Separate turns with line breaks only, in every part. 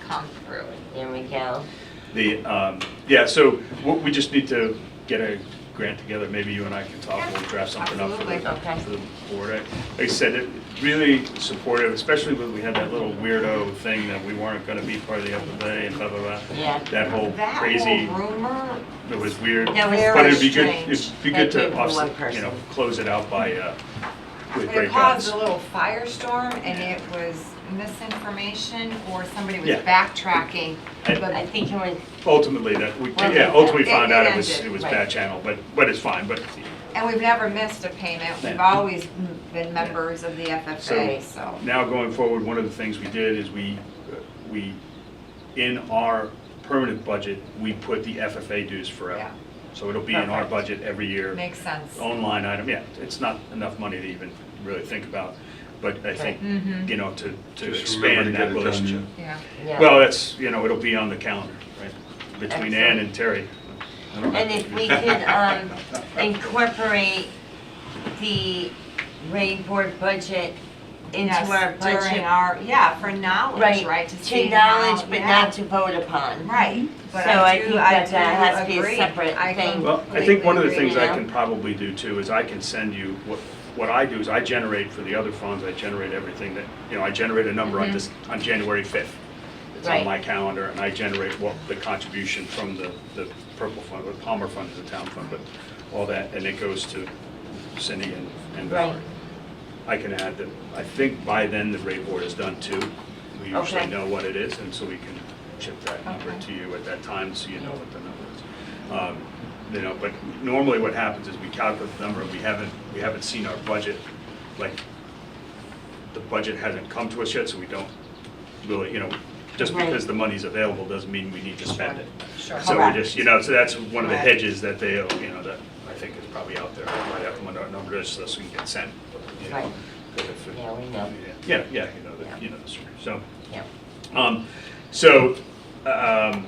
come through, you know, Mikhail?
The, um, yeah, so what- we just need to get a grant together, maybe you and I can talk, we'll draft something up for the,
Absolutely.
for the board. I- Like I said, it- really supportive, especially when we had that little weirdo thing that we weren't gonna be part of the FFA and blah, blah, blah.
Yeah.
That whole
That
Oh, crazy,
whole rumor,
it was weird.
That was
But it'd be good,
very
it'd be
strange.
good
That
to
came from one
offset, you know,
person.
close it out by, uh, with
it
great
caused
guns.
a little firestorm and it was misinformation or somebody was
Yeah.
backtracking.
I-
I
But
think it was,
Ultimately, that, we,
Well,
yeah,
it-
ultimately
it-
found
it
out it was,
ended,
it was
right.
bad channel, but, but it's fine, but
And we've never missed a payment. We've
Yeah.
always m- been members of the FFA, so.
Now, going forward, one of the things we did is we, we, in our permanent budget, we put the FFA dues forever.
Yeah.
So it'll be in our
Perfect.
budget every year.
Makes sense.
Own line item, yeah, it's not enough money to even really think about, but I think, you know, to, to
Just remember to
expand that
get it done, yeah.
relationship.
Yeah.
yeah.
Well, that's, you know, it'll be on the calendar, right, between Ann
Excellent.
and Terry.
I don't have
And
to
if
do
we
that.
could um, incorporate the rain board budget into
Yes,
our
During
budget.
our, yeah, for knowledge, right?
To
see how-
knowledge, but
yeah.
not to vote upon.
Right. But
So I
do-
think that
do
that has to be a
agree.
separate
I
thing.
Well, I think one of the
completely
things
agree.
I can probably do too is I can send you, what, what I do is I generate for the other funds, I generate everything that, you know, I generate a number on this, on January 5th. It's on
Mm-hmm. Right.
my calendar and I generate what the contribution from the, the Purple Fund, the Palmer Fund is a town fund, but all that, and it goes to Cindy and and Valerie.
Right.
I can add that, I think by then the rate board is done too. We usually
Okay.
know what it is, and so we can chip that number
Okay.
to you at that time, so you know what the number is. Um, You know, but normally what happens is we calculate the number, we haven't, we haven't seen our budget, like, the budget hasn't come to us yet, so we don't really, you know, just
Right.
because the money's available doesn't mean we need to spend it.
Sure.
So we
Correct.
just, you know, so that's one of the
Correct.
hedges that they, you know, that I think is probably out there, I might have one of our numbers, so this can get sent, you know.
Right.
'cause if it-
Yeah, we know.
Yeah, yeah, you know,
Yeah.
the, you know, the story. so,
Yeah.
um, so, um,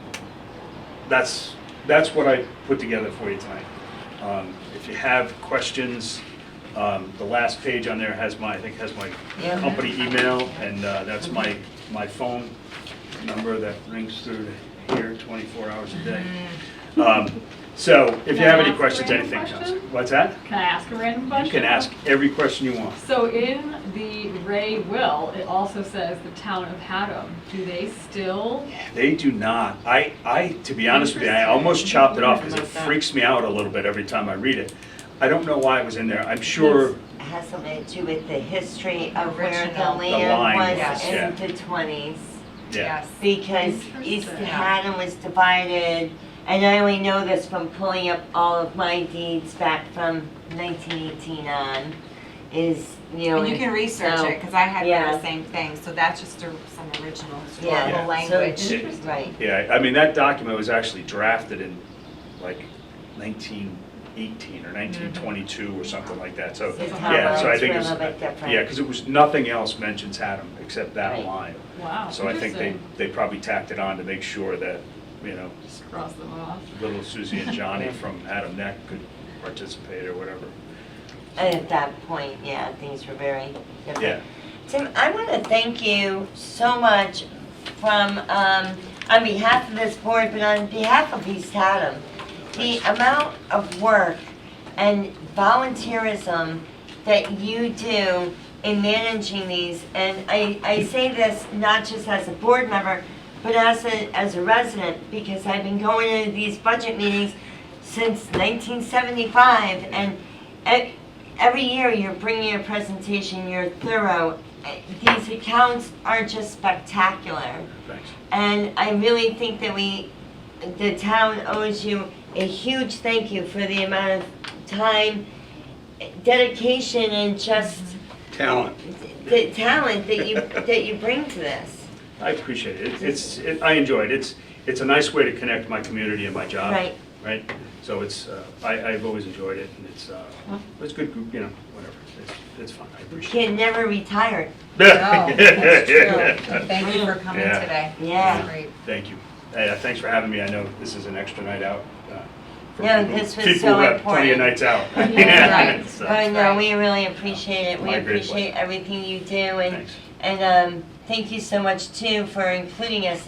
that's, that's what I put together for you tonight. Um, if you have questions, um, the last page on there has my, I think has my
Yeah. Mm-hmm.
company email, and, uh, that's my, my phone number that rings through to here twenty-four hours a
Mm-hmm.
day. Um, so, if you
Can I
have any
ask a
questions,
random
anything, comes-
question?
what's that?
Can I ask a random
You
question?
can ask every question you want.
So in the Ray will, it also says the town of Haddam. Do they still?
They do not. I, I, to be honest with you, I almost chopped it off because it freaks me out a little bit every time I read it. I don't know why it was in there. I'm sure,
It Has something to do with the history of where the
Original. The
land
line,
was
yes,
yeah.
in the twenties.
yeah.
Yes.
Because East
Interesting.
Haddon was divided, and I only know this from pulling up all of my deeds back from nineteen eighteen on, is, you know.
And you can research
so-
it, because I had
Yeah.
the same thing, so that's just a- some original
Yeah.
historical
So-
language.
Interesting.
Right,
Yeah, I mean, that document was actually drafted in like nineteen eighteen or nineteen twenty-two or something like that, so.
So it's
Yeah, so I
highlights
think
were
it
a
was,
little bit different.
yeah, because it was, nothing else mentions Haddam except that
Right.
line.
Wow.
So I think they,
Oh, interesting.
they probably tacked it on to make sure that, you know,
Just cross them off.
little Susie and Johnny from Haddam Neck could participate or whatever.
and at that point, yeah, things were very different.
Yeah.
Tim, I want to thank you so much from, um, on behalf of this board, but on behalf of East Haddam. The amount of work and volunteerism that you do in managing these, and I, I say this not just as a board member, but as a, as a resident, because I've been going into these budget meetings since nineteen seventy-five, and e- every year you're bringing a presentation, you're thorough. Eh, These accounts are just spectacular.
Thanks.
And I really think that we, the town owes you a huge thank you for the amount of time, dedication, and just
Talent.
the talent that you, that you bring to this.
I appreciate it. It's, it- I enjoy it. It's, it's a nice way to connect my community and my job.
Right.
Right? So it's, uh, I, I've always enjoyed it, and it's, uh, it's good, group, you know, whatever. It's, it's fun. I
You
appreciate it.
can never retire.
No, that's true. Thank you for coming
Yeah.
today.
Yeah.
It's Great.
Thank you. Hey, uh, thanks for having me. I know this is an extra night out. uh, for
No,
people-
this was
People
so
who have plenty of
important.
nights out.
Yeah, right.
So,
But no, we really appreciate it. We
My great
appreciate everything you do and,
Thanks.
and um, thank you so much too for including us